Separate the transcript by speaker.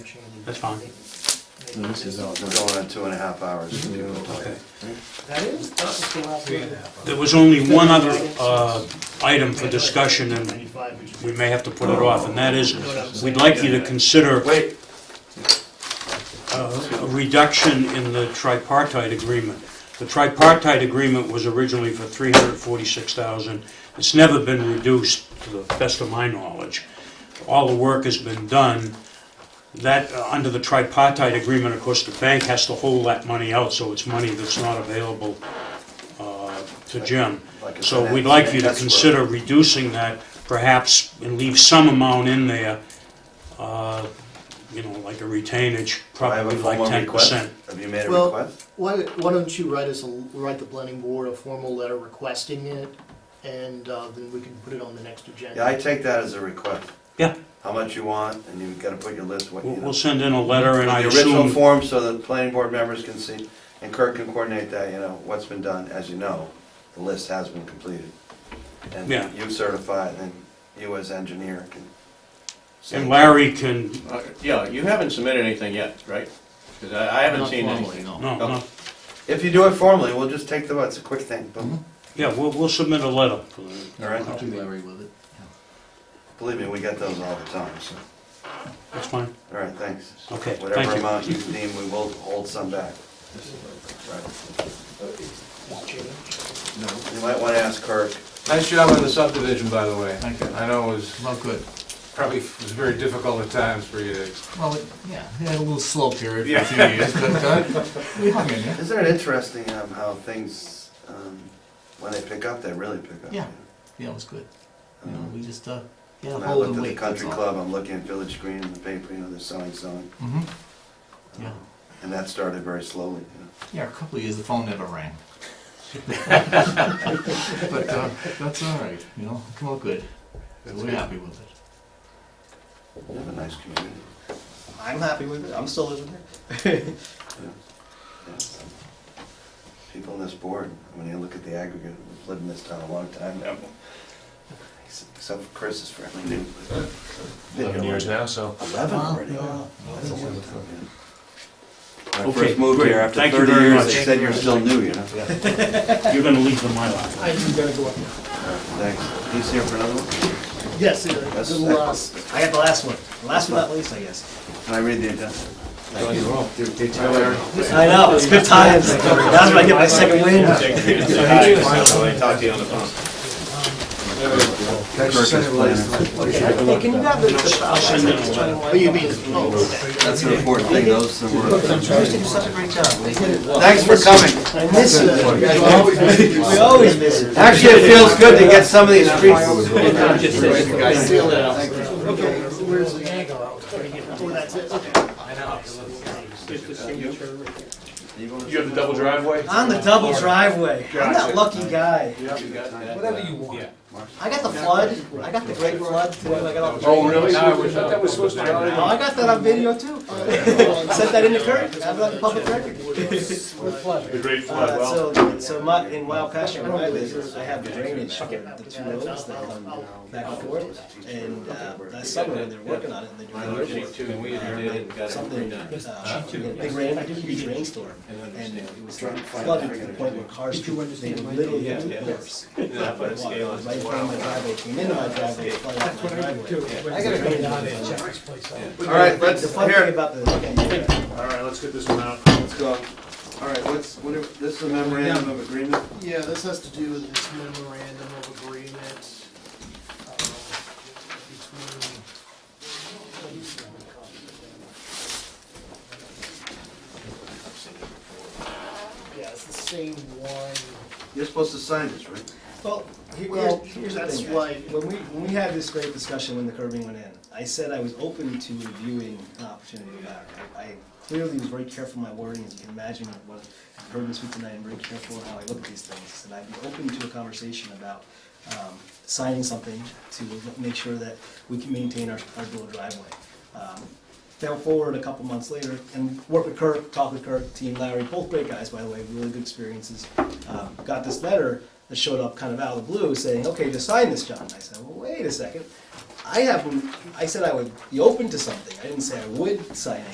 Speaker 1: That's fine.
Speaker 2: This is all
Speaker 3: We're
Speaker 2: done.
Speaker 3: going on two and a half hours.
Speaker 4: Mm-hmm.
Speaker 2: Okay.
Speaker 1: That is, that's the last one.
Speaker 4: There was only one other uh, item for discussion, and we may have to put it off, and that is, we'd like you to consider
Speaker 3: Wait,
Speaker 4: a reduction in the tripartite agreement. The tripartite agreement was originally for 346,000. It's never been reduced, to the best of my knowledge. All the work has been done. That, uh, under the tripartite agreement, of course, the bank has to hold that money out, so it's money that's not available uh, to Jim.
Speaker 3: Like a
Speaker 4: So we'd
Speaker 3: finance-
Speaker 4: like you to
Speaker 3: that's where-
Speaker 4: consider reducing that, perhaps, and leave some amount in there, uh, you know, like a retainage,
Speaker 3: do I have a
Speaker 4: probably like
Speaker 3: formal
Speaker 4: ten
Speaker 3: request?
Speaker 4: percent.
Speaker 3: Have you made a
Speaker 1: Well-
Speaker 3: request?
Speaker 1: Why, why don't you write us, a write the planning board a formal letter requesting it, and uh, then we can put it on the next
Speaker 3: Yeah, I
Speaker 1: agenda.
Speaker 3: take that as a request.
Speaker 4: Yeah.
Speaker 3: How much you want, and you've gotta put your list, what you
Speaker 4: We'll,
Speaker 3: know.
Speaker 4: we'll send in a letter, and I
Speaker 3: The original
Speaker 4: assume,
Speaker 3: form, so the planning board members can see, and Kirk can coordinate that, you know, what's been done, as you know, the list has been completed. And
Speaker 4: Yeah.
Speaker 3: you certify, it, then you as engineer can. say-
Speaker 4: and Larry can,
Speaker 5: Uh, Yeah, you haven't submitted anything yet, right? Because I I haven't seen anything.
Speaker 4: no, no,
Speaker 3: If you do it formally, we'll just take the, it's a quick thing, boom,
Speaker 4: yeah, we'll, we'll submit a letter. for that.
Speaker 3: all right?
Speaker 2: I'll do Larry with it.
Speaker 3: Believe me, we get those all the time, so,
Speaker 4: That's fine,
Speaker 3: all right, thanks.
Speaker 4: okay,
Speaker 3: Whatever
Speaker 4: thank
Speaker 3: amount
Speaker 4: you.
Speaker 3: you deem, we will hold some back. Right. You might wanna ask Kirk.
Speaker 6: Nice job on the subdivision, by the way.
Speaker 2: Thank you.
Speaker 6: I know it was
Speaker 2: Well, good.
Speaker 6: probably, it was very difficult at times for you to
Speaker 2: Well, it- yeah, we had a little slow period for a few years, but uh, we hung in there.
Speaker 3: Isn't it interesting um, how things, um, when they pick up, they really pick up? Um,
Speaker 2: Yeah. Yeah, it was good. You know, we just, uh, yeah,
Speaker 3: When I
Speaker 2: hold
Speaker 3: looked
Speaker 2: and
Speaker 3: at the
Speaker 2: wait. that's
Speaker 3: country
Speaker 2: all.
Speaker 3: club, I'm looking at Village Green in the paper, you know, they're selling, selling.
Speaker 2: Mhm.
Speaker 3: um,
Speaker 2: Yeah.
Speaker 3: And that started very slowly, you know.
Speaker 2: Yeah, a couple of years, the phone never rang. But uh, that's all right, you know, come out good. So We're happy with it.
Speaker 3: We have a nice community.
Speaker 7: I'm happy with it. I'm still living here.
Speaker 3: Yeah. People on this board, when you look at the aggregate, we've lived in this town a long time now. Except for Chris is fairly new. Eleven years now, so. Eleven already, wow. That's a long time, yeah. When I
Speaker 4: Okay,
Speaker 3: first moved
Speaker 4: great.
Speaker 3: here, after
Speaker 4: Thank you
Speaker 3: thirty
Speaker 4: very
Speaker 3: years,
Speaker 4: much.
Speaker 3: they said you're still new, you know?
Speaker 4: You're gonna leave the Mylar.
Speaker 1: I do gotta go up now.
Speaker 3: Thanks. He's here for another one?
Speaker 7: Yes,
Speaker 3: That's
Speaker 7: the last. I got the last one. The Last but not least, I guess.
Speaker 3: Can I read the agenda?
Speaker 7: I know, it's good times. That's when I get my second win.
Speaker 5: Talk to you on the phone.
Speaker 3: Kirk is planning.
Speaker 7: Hey, can you grab the, the, I'll send it.
Speaker 1: Oh, you mean, oh, okay.
Speaker 3: That's an important thing, those that were.
Speaker 7: You used to do such a great job. They did it well.
Speaker 3: Thanks for coming.
Speaker 7: I miss
Speaker 1: uh,
Speaker 7: it. We always miss it.
Speaker 3: Actually, it feels good to get some of these streets.
Speaker 1: Where's the angle? Oh, that's it, okay.
Speaker 6: You have the double driveway?
Speaker 7: On the double driveway. I'm that lucky guy.
Speaker 6: Whatever you want.
Speaker 7: I got the flood. I got the great flood too. I got all the.
Speaker 6: Oh, really? I thought that was supposed to be
Speaker 7: Oh, I got that on video too. Set that in the current, have it on the public record.
Speaker 6: The great
Speaker 7: Uh, So, so my, in Wild Pasture, where I live, I have drainage for the two roads that come back and forth. And uh, last summer, when they're working on it, and they do
Speaker 5: Sheet two, and we did it and got it
Speaker 7: something,
Speaker 5: done.
Speaker 7: uh, big rain, huge rainstorm. And it was flooded to the point where cars, couldn't- they were literally
Speaker 5: Yeah,
Speaker 7: had
Speaker 5: yeah.
Speaker 7: doors.
Speaker 5: Then I put a scale on.
Speaker 7: Right in front of my driveway, came into my driveway, flooded out my driveway. I got a drainage on it.
Speaker 3: All right, let's,
Speaker 7: The funny thing
Speaker 3: here,
Speaker 7: about the,
Speaker 8: All right, let's get this one out.
Speaker 3: let's go. All right, what's, what are, this is a memorandum of agreement?
Speaker 1: Yeah, this has to do with this memorandum of agreement um, between. Yeah, it's the same one.
Speaker 3: You're supposed to sign this, right?
Speaker 7: Well, he-
Speaker 1: Well,
Speaker 7: here's, here's the
Speaker 1: that's
Speaker 7: thing.
Speaker 1: why-
Speaker 7: When we, when we had this great discussion when the curbing went in, I said I was open to reviewing an opportunity to go back. I I clearly was very careful in my wording, as you can imagine, what I've heard this week tonight, I'm very careful in how I look at these things. And I'd be open to a conversation about, um, signing something to make sure that we can maintain our, our dual driveway. Um, Fell forward a couple months later and worked with Kirk, talked with Kirk, Team Larry, both great guys, by the way, really good experiences. Um, Got this letter that showed up kind of out of the blue saying, okay, just sign this, John. I said, well, wait a second. I haven't, I said I would be open to something. I didn't say I would sign it.